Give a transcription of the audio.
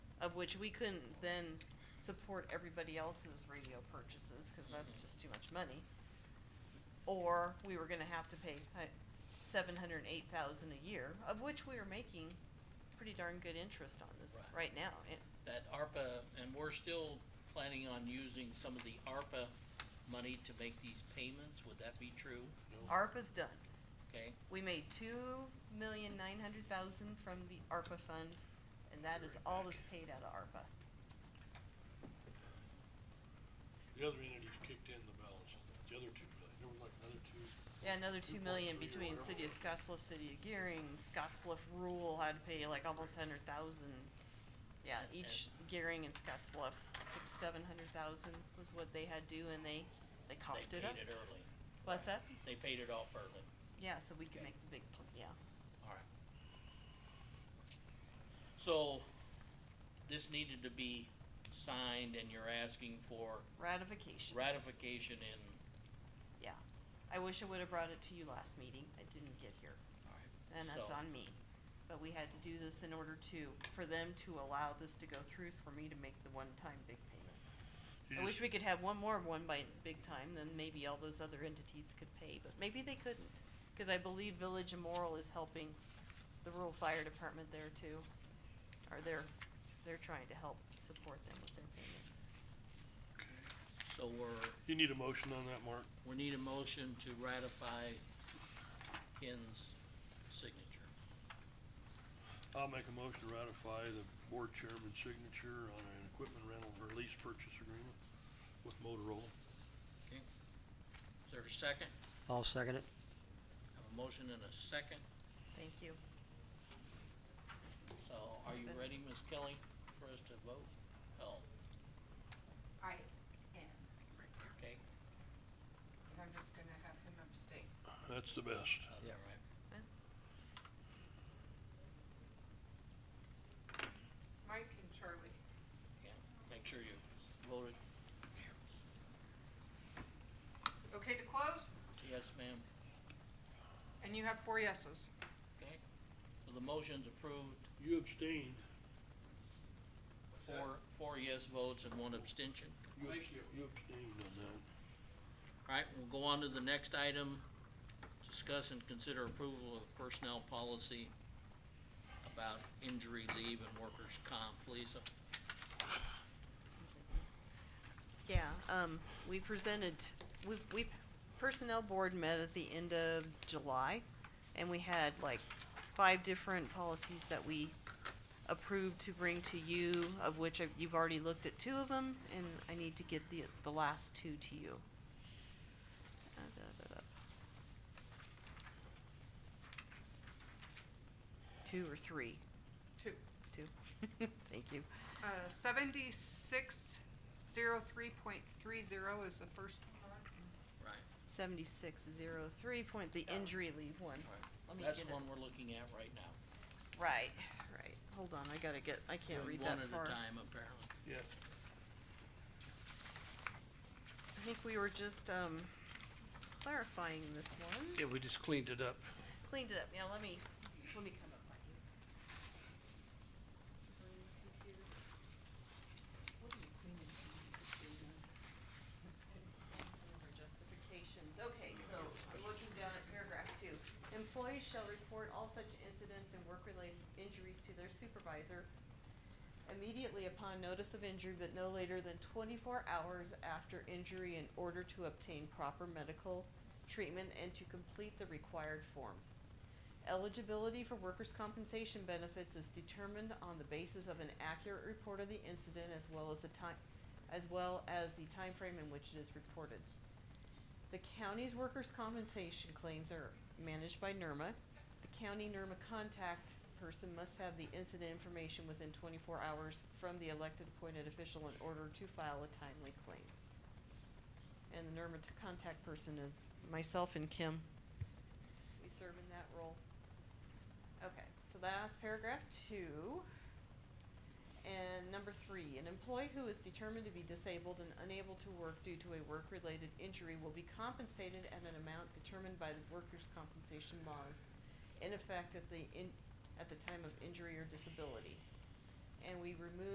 of which we couldn't then support everybody else's radio purchases, cause that's just too much money. Or we were gonna have to pay uh, seven hundred and eight thousand a year, of which we are making pretty darn good interest on this right now, and that ARPA, and we're still planning on using some of the ARPA money to make these payments, would that be true? ARPA's done. Okay, We made two million nine hundred thousand from the ARPA fund, and that is all that's paid out of ARPA. The other entities kicked in the balance, the other two, million. there was like another two, Yeah, another two million 2.3 or between whatever City of it was. Scottsbluff, City of Gearing, Scottsbluff Rural had to pay like almost hundred thousand. Yeah, And- each Gearing and Scottsbluff, six, seven hundred thousand was what they had due and they, they coughed it they up. paid it early, What's that? they paid it off early, Yeah, so we can Okay. make the big, pl- yeah. alright. So, this needed to be signed and you're asking for Ratification, ratification in, yeah. I wish I would've brought it to you last meeting. I didn't get here. And that's So- on me. But we had to do this in order to, for them to allow this to go through, is for me to make the one-time big payment. I wish we could have one more one by big time, then maybe all those other entities could pay, but maybe they couldn't. Cause I believe Village Immoral is helping the rural fire department there too. Or they're, they're trying to help support them with their payments. so we're, You need a motion on that, Mark? we need a motion to ratify Ken's signature. I'll make a motion to ratify the board chairman's signature on an equipment rental or lease purchase agreement with Motorola. Is there a second? I'll second it. Have a motion and a second, Thank you. so are you ready, Ms. Kelly, for us to vote? Oh, I am, okay, and I'm just gonna have him abstain. That's the best. that's all right. Mike and Charlie. Yeah, make sure you've voted. Okay to close? Yes, ma'am. And you have four yeses. Okay, so the motion's approved, You abstained. four, four yes votes and one abstention. Thank you. abs- You abstained on that. All right, we'll go on to the next item, discuss and consider approval of personnel policy about injury leave and workers' comp. Lisa, Yeah, um, we presented, we, we, Personnel Board met at the end of July, and we had like five different policies that we approved to bring to you, of which I've- you've already looked at two of them, and I need to get the, the last two to you. Uh, da, da, da. Two or three, Two. two, thank you. Uh, seventy-six zero three point three zero is the first one. right, Seventy-six, zero, three point, the injury leave one. Let me Oh. that's get the it. one we're looking at right now. Right, right. Hold on, I gotta get, I can't read Doing that One far. at a time, apparently. Yeah. I think we were just, um, clarifying this one. Yeah, we just cleaned it up. Cleaned it up. Now, let me, let me come up right here. What are you cleaning from the computer? Some of our Justifications, okay, so I'm looking down at paragraph two. Employees shall report all such incidents and work-related injuries to their supervisor immediately upon notice of injury, but no later than twenty-four hours after injury in order to obtain proper medical treatment and to complete the required forms. Eligibility for workers' compensation benefits is determined on the basis of an accurate report of the incident as well as the time, as well as the time frame in which it is reported. The county's workers' compensation claims are managed by NERMA. The county NERMA contact person must have the incident information within twenty-four hours from the elected appointed official in order to file a timely claim. And the NERMA t- contact person is myself and Kim. We serve in that role. Okay, so that's paragraph two. And number three, an employee who is determined to be disabled and unable to work due to a work-related injury will be compensated at an amount determined by the workers' compensation laws in effect at the in, at the time of injury or disability. And we remove